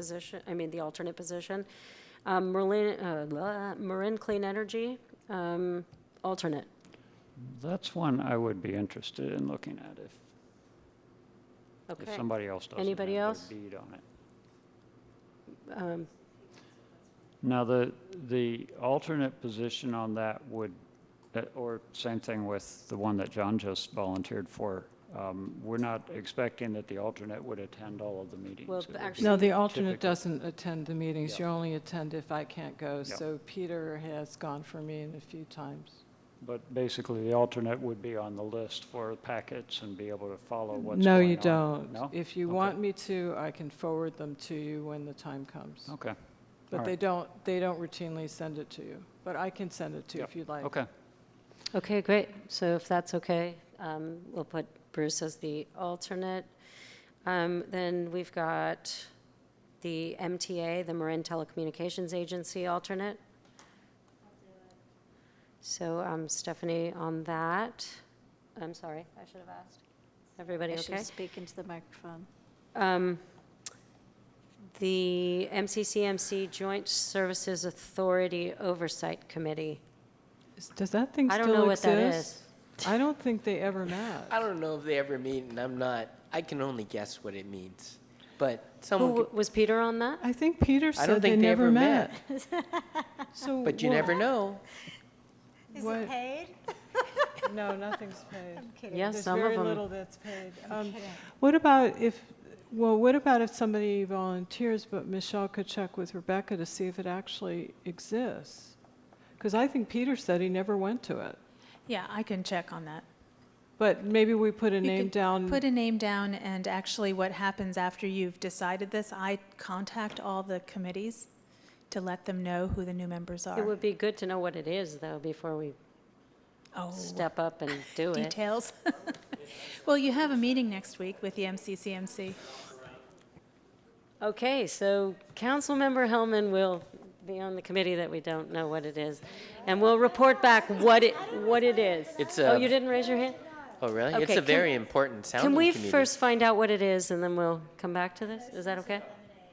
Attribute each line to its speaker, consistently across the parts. Speaker 1: position, I mean, the alternate position. Um, Merlin, uh, blah, Marin Clean Energy, um, alternate.
Speaker 2: That's one I would be interested in looking at if, if
Speaker 1: Okay.
Speaker 2: somebody else doesn't have
Speaker 1: Anybody
Speaker 2: their
Speaker 1: else?
Speaker 2: bead on it.
Speaker 1: Um,
Speaker 2: Now, the, the alternate position on that would, uh, or same thing with the one that John just volunteered for. Um, We're not expecting that the alternate would attend all of the meetings.
Speaker 1: Well,
Speaker 2: It would
Speaker 1: actually-
Speaker 2: be-
Speaker 3: No, the alternate
Speaker 2: typical.
Speaker 3: doesn't attend the meetings. You only attend if I can't go.
Speaker 2: Yeah.
Speaker 3: So Peter has gone for me in a few times.
Speaker 2: But basically, the alternate would be on the list for packets and be able to follow what's going
Speaker 3: No,
Speaker 2: on.
Speaker 3: you don't.
Speaker 2: No?
Speaker 3: If you
Speaker 2: Okay.
Speaker 3: want me to, I can forward them to you when the time comes.
Speaker 2: Okay, Oh, all
Speaker 3: But they
Speaker 2: right.
Speaker 3: don't, they don't routinely send it to you. But I can send it to you
Speaker 2: Yep.
Speaker 3: if you'd like.
Speaker 2: okay.
Speaker 1: Okay, great. So if that's okay, um, we'll put Bruce as the alternate. Um, Then we've got the MTA, the Marin Telecommunications Agency alternate. So um, Stephanie on that. I'm sorry, I should have asked. Everybody
Speaker 4: I
Speaker 1: okay?
Speaker 4: should speak into the microphone.
Speaker 1: Um, The MCCMC Joint Services Authority Oversight Committee.
Speaker 3: Is- Does that thing
Speaker 1: I
Speaker 3: still
Speaker 1: don't
Speaker 3: exist?
Speaker 1: know what that is.
Speaker 3: I don't think they ever met.
Speaker 5: I don't know if they ever meet, and I'm not. I can only guess what it means, but
Speaker 1: Who,
Speaker 5: someone.
Speaker 1: w-
Speaker 5: could-
Speaker 1: was Peter on that?
Speaker 3: I think Peter
Speaker 5: I don't
Speaker 3: said they
Speaker 5: think they
Speaker 3: never
Speaker 5: ever
Speaker 3: met.
Speaker 5: met.
Speaker 3: So
Speaker 5: But you
Speaker 3: what-
Speaker 5: never know.
Speaker 3: what-
Speaker 4: paid?
Speaker 3: No, nothing's paid.
Speaker 4: kidding.
Speaker 1: Yeah, some of
Speaker 3: There's very
Speaker 1: them.
Speaker 3: little that's paid. Um, What about if, well, what about if somebody volunteers, but Michelle could check with Rebecca to see if it actually exists? Because I think Peter said he never went to it.
Speaker 6: Yeah, I can check on that.
Speaker 3: But maybe we put a
Speaker 6: You
Speaker 3: name
Speaker 6: could
Speaker 3: down.
Speaker 6: Put a name down, and actually, what happens after you've decided this, I contact all the committees to let them know who the new members
Speaker 1: It
Speaker 6: are.
Speaker 1: would be good to know what it is, though, before we
Speaker 6: Oh,
Speaker 1: step up and do it.
Speaker 6: details. Well, you have a meeting next week with the MCCMC.
Speaker 1: Okay, so Councilmember Hellman will be on the committee that we don't know what it is, and we'll report back what it, what it is.
Speaker 5: It's uh,
Speaker 1: Oh,
Speaker 5: a-
Speaker 1: you didn't raise your hand?
Speaker 5: Oh, really?
Speaker 1: Okay,
Speaker 5: it's a
Speaker 1: can-
Speaker 5: very important sounding
Speaker 1: Can we
Speaker 5: committee.
Speaker 1: first find out what it is, and then we'll come back to this? Is that okay?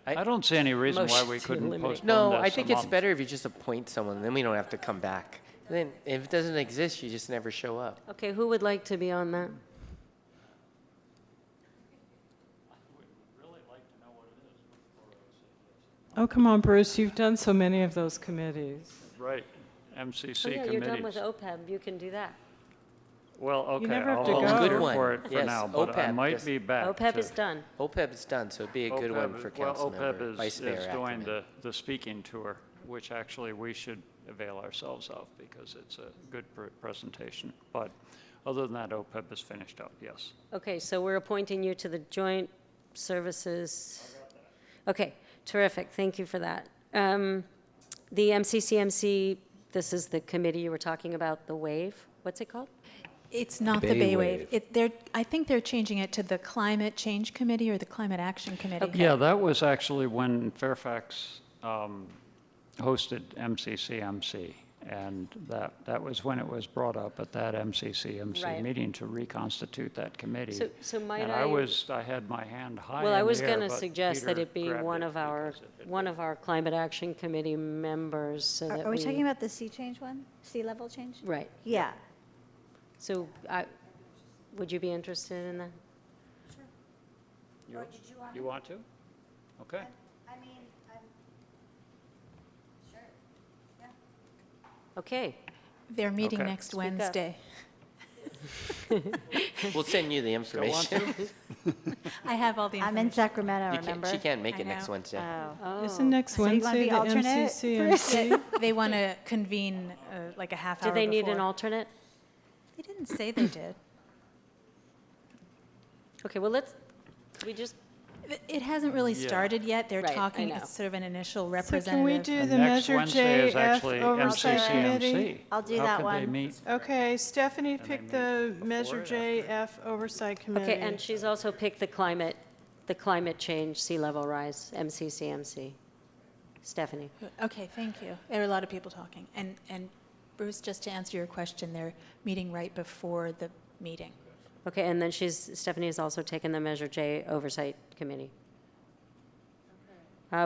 Speaker 2: I don't see any reason why
Speaker 1: Motion
Speaker 2: we
Speaker 1: to
Speaker 2: couldn't
Speaker 1: eliminate.
Speaker 2: postpone
Speaker 5: No,
Speaker 2: this
Speaker 5: I
Speaker 2: a
Speaker 5: think it's
Speaker 2: month.
Speaker 5: better if you just appoint someone, then we don't have to come back. Then if it doesn't exist, you just never show up.
Speaker 1: Okay, who would like to be on that?
Speaker 3: Oh, come on, Bruce, you've done so many of those committees.
Speaker 2: Right,
Speaker 1: Oh,
Speaker 2: MCC
Speaker 1: yeah, you're done with
Speaker 2: committees.
Speaker 1: OPEB, you can do that.
Speaker 2: Well, okay,
Speaker 3: never have
Speaker 2: I'll
Speaker 3: to go.
Speaker 2: volunteer
Speaker 3: Good
Speaker 5: one.
Speaker 2: for it for
Speaker 5: Yes, E
Speaker 2: now, but I
Speaker 5: OPEB,
Speaker 2: might
Speaker 5: yes.
Speaker 2: be back
Speaker 1: OPEB
Speaker 2: to-
Speaker 1: E is done.
Speaker 5: OPEB E is done, so it'd be a good one
Speaker 2: OPEB
Speaker 5: for
Speaker 2: E well,
Speaker 5: council member,
Speaker 2: OPEB
Speaker 5: vice
Speaker 2: is,
Speaker 5: mayor.
Speaker 2: is doing
Speaker 5: Ackerman.
Speaker 2: the, the speaking tour, which actually we should avail ourselves of because it's a good pr- presentation. But other than that, OPEB is finished up, yes.
Speaker 1: Okay, so we're appointing you to the Joint Services. Okay, terrific, thank you for that. Um, The MCCMC, this is the committee you were talking about, the WAVE, E. what's it called?
Speaker 6: It's not the
Speaker 7: Bay
Speaker 6: Bay
Speaker 7: Wave.
Speaker 6: Wave. It, they're, I think they're changing it to the Climate Change Committee or the Climate Action Committee.
Speaker 2: Yeah, that was actually when Fairfax um, hosted MCCMC. And that, that was when it was brought up at that
Speaker 1: Right.
Speaker 2: MCCMC meeting to reconstitute that committee.
Speaker 1: So- so might
Speaker 2: And I
Speaker 1: I-
Speaker 2: was, I had my hand high in the
Speaker 1: Well, I was
Speaker 2: air,
Speaker 1: going to
Speaker 2: but
Speaker 1: suggest that
Speaker 2: Peter
Speaker 1: it be
Speaker 2: grabbed
Speaker 1: one
Speaker 2: it
Speaker 1: of our,
Speaker 2: because it had
Speaker 1: one of our Climate Action Committee members, so that we.
Speaker 4: Are we talking about the sea change one? Sea level change?
Speaker 1: Right,
Speaker 4: Yeah.
Speaker 1: so I, would you be interested in that?
Speaker 2: You- You want to? Okay.
Speaker 4: I mean, sure.
Speaker 1: Okay,
Speaker 6: They're meeting
Speaker 2: Okay.
Speaker 6: next
Speaker 1: up.
Speaker 6: Wednesday.
Speaker 5: We'll send you the information.
Speaker 6: I have all the
Speaker 4: I'm in
Speaker 6: information.
Speaker 4: Sacramento,
Speaker 5: You can't-
Speaker 4: remember?
Speaker 5: she can't make
Speaker 6: I
Speaker 5: it next
Speaker 6: know.
Speaker 5: Wednesday.
Speaker 4: Oh.
Speaker 1: oh.
Speaker 3: Isn't next
Speaker 4: So you wanna
Speaker 3: Wednesday
Speaker 4: be
Speaker 3: the
Speaker 4: alternate,
Speaker 3: MCCMC?
Speaker 6: They want to convene uh, like a half hour
Speaker 1: Do
Speaker 6: before.
Speaker 1: they need an alternate?
Speaker 6: They didn't say they did.
Speaker 1: Okay, well, let's, we just
Speaker 6: It- It hasn't really
Speaker 2: Yeah.
Speaker 6: started yet. They're
Speaker 1: Right, I
Speaker 6: talking,
Speaker 1: know.
Speaker 6: it's sort of an initial
Speaker 3: So Can we
Speaker 6: representative.
Speaker 3: do
Speaker 2: And
Speaker 3: the
Speaker 2: next
Speaker 3: Measure
Speaker 2: Wednesday is
Speaker 3: JF
Speaker 2: actually
Speaker 3: Oversight Committee?
Speaker 2: MCCMC.
Speaker 4: I'll do
Speaker 2: How
Speaker 4: that
Speaker 2: could they
Speaker 4: one.
Speaker 2: meet?
Speaker 3: Okay, Stephanie
Speaker 2: they
Speaker 3: picked
Speaker 2: meet
Speaker 3: the
Speaker 2: before
Speaker 3: Measure
Speaker 2: or after?
Speaker 3: JF Oversight Committee.
Speaker 1: Okay, and she's also picked the climate, the climate change, sea level rise, MCCMC. Stephanie,
Speaker 6: Okay, thank you. There are a lot of people talking. And, and Bruce, just to answer your question, they're meeting right before the meeting.
Speaker 1: okay, and then she's, Stephanie has also taken the Measure J Oversight Committee.